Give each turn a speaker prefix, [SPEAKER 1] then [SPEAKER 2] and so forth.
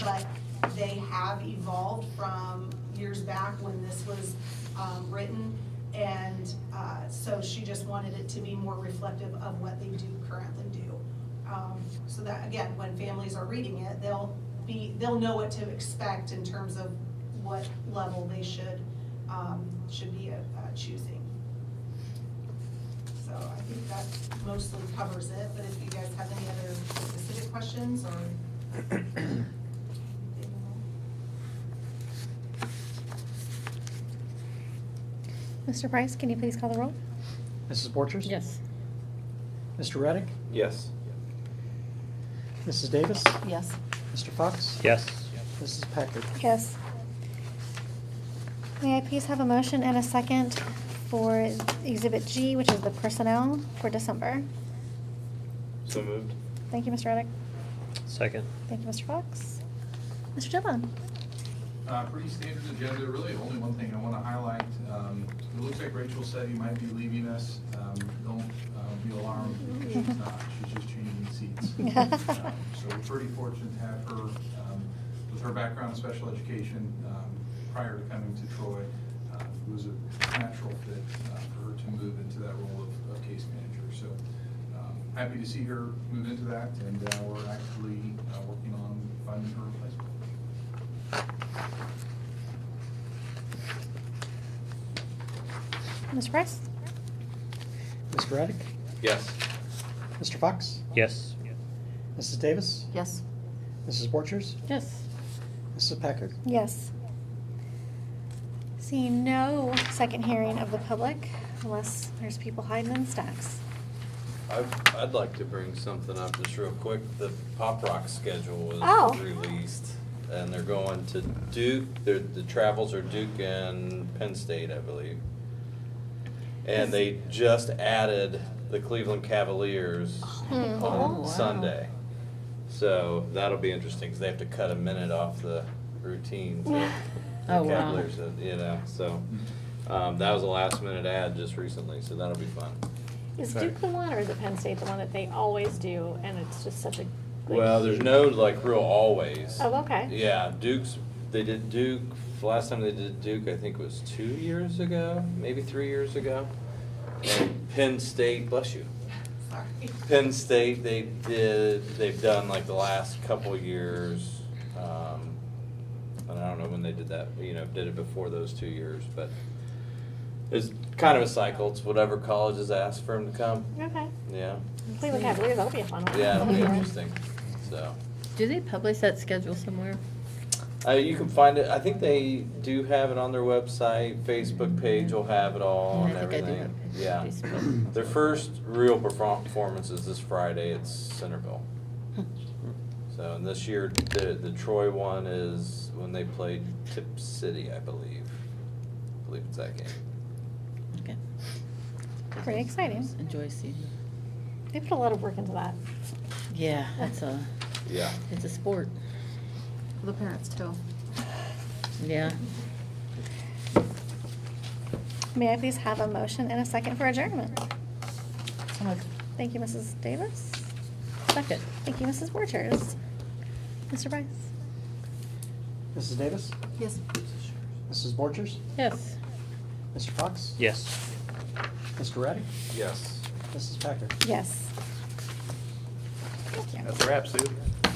[SPEAKER 1] but they have evolved from years back when this was um, written. And uh, so she just wanted it to be more reflective of what they do currently do. Um, So that, again, when families are reading it, they'll be, they'll know what to expect in terms of what level they should, um, should be uh, choosing. So I think that mostly covers it, but if you guys have any other specific questions or.
[SPEAKER 2] Mr. Price, can you please call the roll?
[SPEAKER 3] Mrs. Borchers?
[SPEAKER 4] Yes.
[SPEAKER 3] Mr. Reddick?
[SPEAKER 5] Yes.
[SPEAKER 3] Mrs. Davis?
[SPEAKER 4] Yes.
[SPEAKER 3] Mr. Fox?
[SPEAKER 5] Yes.
[SPEAKER 3] Mrs. Packard?
[SPEAKER 2] Yes. May I please have a motion and a second for Exhibit G, which is the personnel for December?
[SPEAKER 5] So moved.
[SPEAKER 2] Thank you, Mr. Reddick.
[SPEAKER 5] Second.
[SPEAKER 2] Thank you, Mr. Fox. Mr. Dillon?
[SPEAKER 6] Uh, Pretty standard agenda, really, only one thing I want to highlight. um, It looks like Rachel said he might be leaving us. Um, Don't uh, be alarmed, she's not, she's just changing seats. Um, So we're pretty fortunate to have her, um, with her background in special education um, prior to coming to Troy. uh, It was a natural fit uh, for her to move into that role of- of case manager. So um, happy to see her move into that, and uh, we're actually uh, working on finding her replacement.
[SPEAKER 2] Mr. Price?
[SPEAKER 3] Mr. Reddick?
[SPEAKER 5] Yes.
[SPEAKER 3] Mr. Fox?
[SPEAKER 5] Yes.
[SPEAKER 3] Mrs. Davis?
[SPEAKER 4] Yes.
[SPEAKER 3] Mrs. Borchers?
[SPEAKER 4] Yes.
[SPEAKER 3] Mrs. Packard?
[SPEAKER 2] Yes. See no second hearing of the public unless there's people hiding in stacks.
[SPEAKER 5] I'd, I'd like to bring something up just real quick. The Pop Rock schedule
[SPEAKER 2] Oh.
[SPEAKER 5] was released. And they're going to Duke, Their the travels are Duke and Penn State, I believe. And they just added the Cleveland Cavaliers
[SPEAKER 4] Oh,
[SPEAKER 5] on
[SPEAKER 4] wow.
[SPEAKER 5] Sunday. So that'll be interesting, because they have to cut a minute off the routine to the
[SPEAKER 4] Oh, wow.
[SPEAKER 5] Cavaliers, uh, you know, so. Um, that was a last minute ad just recently, so that'll be fun.
[SPEAKER 7] Is
[SPEAKER 5] Okay.
[SPEAKER 7] Duke the one, or is it Penn State the one that they always do, and it's just such a. like,
[SPEAKER 5] Well, there's no like real always.
[SPEAKER 7] Oh, okay.
[SPEAKER 5] Yeah, Duke's, they did Duke, last time they did Duke, I think was two years ago, maybe three years ago. And Penn State, bless you.
[SPEAKER 1] Sorry.
[SPEAKER 5] Penn State, they did, they've done like the last couple years, um, and I don't know when they did that, you know, did it before those two years, but it's kind of a cycle, it's whatever colleges ask for them to come,
[SPEAKER 7] Okay.
[SPEAKER 5] yeah,
[SPEAKER 7] Cleveland Cavaliers, that'll be a fun one.
[SPEAKER 5] yeah, it'll be interesting, so.
[SPEAKER 4] Do they publish that schedule somewhere?
[SPEAKER 5] Uh, you can find it, I think they do have it on their website, Facebook page will have it all and
[SPEAKER 4] I think I do
[SPEAKER 5] everything,
[SPEAKER 4] have it.
[SPEAKER 5] yeah.
[SPEAKER 4] Facebook.
[SPEAKER 5] Their first real perform- performance is this Friday at Centerville. So, and this year, the, the Troy one is when they played Tip City, I believe. I believe it's that game.
[SPEAKER 4] Okay.
[SPEAKER 2] Pretty exciting.
[SPEAKER 4] Enjoy season.
[SPEAKER 7] They put a lot of work into that.
[SPEAKER 4] Yeah, it's a,
[SPEAKER 5] Yeah.
[SPEAKER 4] it's a sport.
[SPEAKER 8] The parents too.
[SPEAKER 4] Yeah.
[SPEAKER 2] May I please have a motion and a second for adjournment?
[SPEAKER 4] So moved.
[SPEAKER 2] Thank you, Mrs. Davis.
[SPEAKER 4] Second.
[SPEAKER 2] Thank you, Mrs. Borchers. Mr. Price?
[SPEAKER 3] Mrs. Davis?
[SPEAKER 8] Yes.
[SPEAKER 3] Mrs. Borchers?
[SPEAKER 4] Yes.
[SPEAKER 3] Mr. Fox?
[SPEAKER 5] Yes.
[SPEAKER 3] Mr. Reddick?
[SPEAKER 5] Yes.
[SPEAKER 3] Mrs. Packard?
[SPEAKER 2] Yes. Thank you.
[SPEAKER 5] a wrap, Sue.